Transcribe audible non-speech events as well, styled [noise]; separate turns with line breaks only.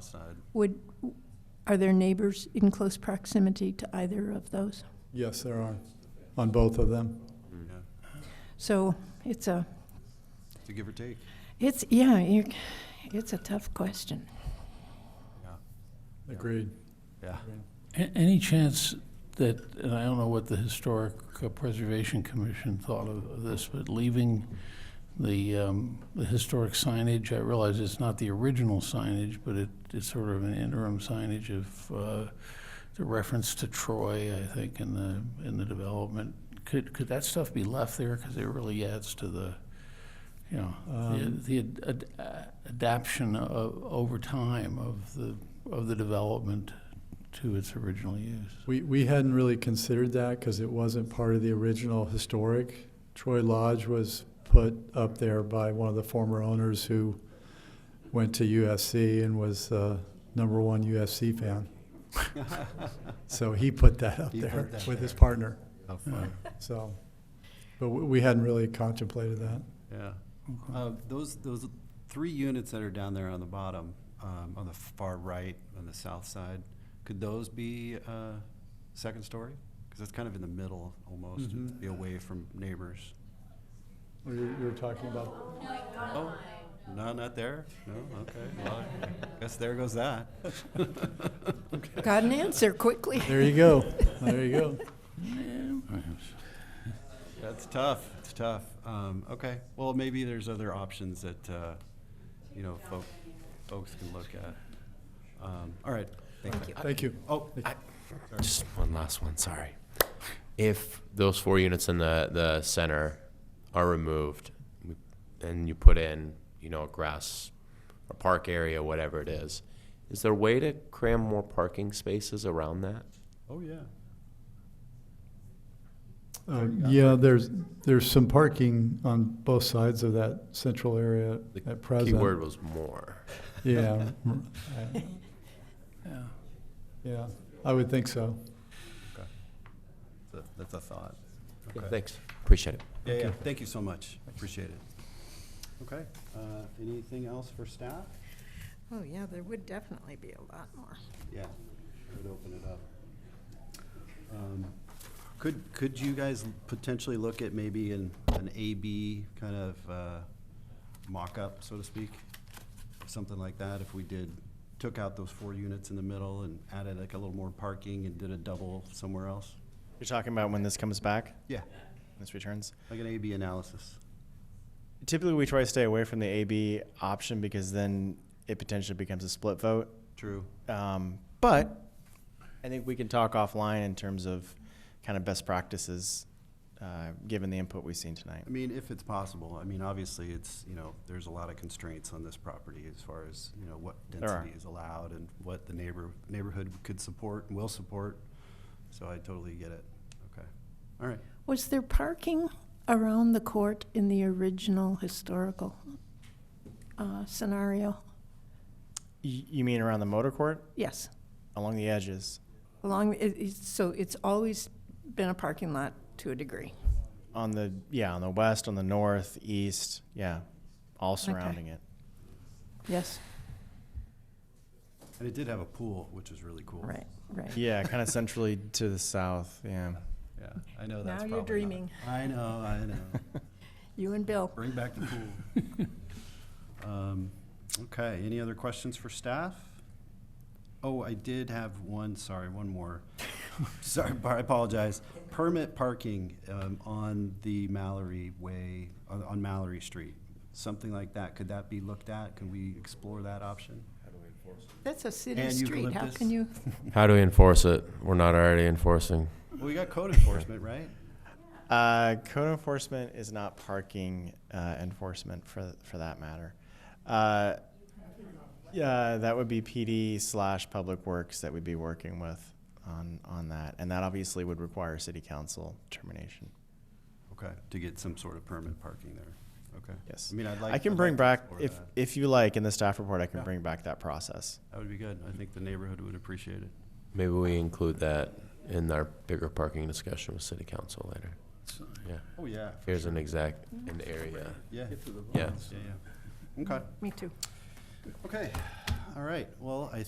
south side.
Would, are there neighbors in close proximity to either of those?
Yes, there are, on both of them.
Yeah,
So it's a,
to give or take.
it's, yeah, you it's a tough question.
Yeah,
Agreed.
yeah.
A- Any chance that, and I don't know what the Historic uh, Preservation Commission thought of of this, but leaving the, um, the historic signage, I realize it's not the original signage, but it, it's sort of an interim signage of, uh, the reference to Troy, I think, in the, in the development. Could, could that stuff be left there? Because it really adds to the, you know, the, the ad- ad- adaption of, over time of the, of the development to its original use.
We, we hadn't really considered that because it wasn't part of the original historic. Troy Lodge was put up there by one of the former owners who went to USC and was uh, number one USC
[laughs]
fan. So he put that up
He put
there
that
with his
there.
partner,
How fun.
so. But we we hadn't really contemplated that.
[laughs] Yeah. Uh, Those, those three units that are down there on the bottom, um, on the far right, on the south side, could those be uh, second story? Because that's kind of in the middle almost, it'd be away from neighbors.
You you were talking about,
Oh, no, not there? No, okay. Well, I guess there goes that. [laughs]
Got an answer quickly.
there you go, there you go.
That's tough. It's tough. Um, okay. Well, maybe there's other options that, uh, you know, folk, folks can look at. Um, all right. Thank you.
Thank you.
Oh,
Just one last one, sorry. If those four units in the, the center are removed and you put in, you know, a grass or park area, whatever it is, is there a way to cram more parking spaces around that?
oh, yeah.
Um, Yeah, there's, there's some parking on both sides of that central area
The
at present.
Key word was more. [laughs]
Yeah. I-
Yeah.
Yeah, I would think so.
That's a- That's a thought.
Yeah,
Okay.
Thanks, appreciate it.
Yeah, yeah. Thank you so much. Appreciate it. Okay. Uh, anything else for staff?
Oh, yeah, there would definitely be a lot more.
Yeah, would open it up. Um, Could, could you guys potentially look at maybe an, an A-B kind of uh, mock-up, so to speak? Something like that, if we did, took out those four units in the middle and added like a little more parking and did a double somewhere else?
You're talking about when this comes back,
Yeah,
this returns.
like an A-B analysis.
Typically, we try to stay away from the AB option because then it potentially becomes a split vote.
True.
Um, but I think we can talk offline in terms of kind of best practices, uh, given the input we've seen tonight.
I mean, if it's possible, I mean, obviously, it's, you know, there's a lot of constraints on this property as far as, you know, what
There are.
density is allowed and what the neighbor, neighborhood could support and will support. So I totally get it. Okay. All right.
Was there parking around the court in the original historical uh, scenario?
Y- you mean around the motor court,
Yes,
along the edges,
along, it- it's- so it's always been a parking lot to a degree.
on the yeah, on the west, on the north, east, yeah, all surrounding it.
Yes,
And it did have a pool, which is really cool.
right, right.
Yeah, kind of centrally to the south. Yeah.
Yeah, I know
Now
that's probably
you're
not-
dreaming.
I know, I [laughs] know.
You and Bill.
Bring back the pool. [laughs] Um, Okay, any other questions for staff? Oh, I did have one, sorry, one [laughs] more. Sorry, Bar- I apologize. Permit parking um, on the Mallory Way, on- on Mallory Street, something like that. Could that be looked at? Can we explore that option?
That's a city
And
street. How
eucalyptus.
can you?
How do we enforce it? We're not already enforcing.
Well, we got code enforcement, right?
Uh, code enforcement is not parking uh, enforcement for for that matter. Uh, yeah, that would be PD slash Public Works that we'd be working with on on that, and that obviously would require City Council determination.
Okay, to get some sort of permit parking there. Okay.
Yes,
I mean, I'd like.
I can
I'd
bring
like to
back
explore
if
that.
if you like in the staff report. I can
Yeah.
bring back that process.
That would be good. I think the neighborhood would appreciate it.
Maybe we include that in our bigger parking discussion with city council later. Yeah,
Oh, yeah.
here's an exact, an area.
Yeah.
Yeah.
Yeah, yeah. Okay,
Me too.
okay. all right. Well, I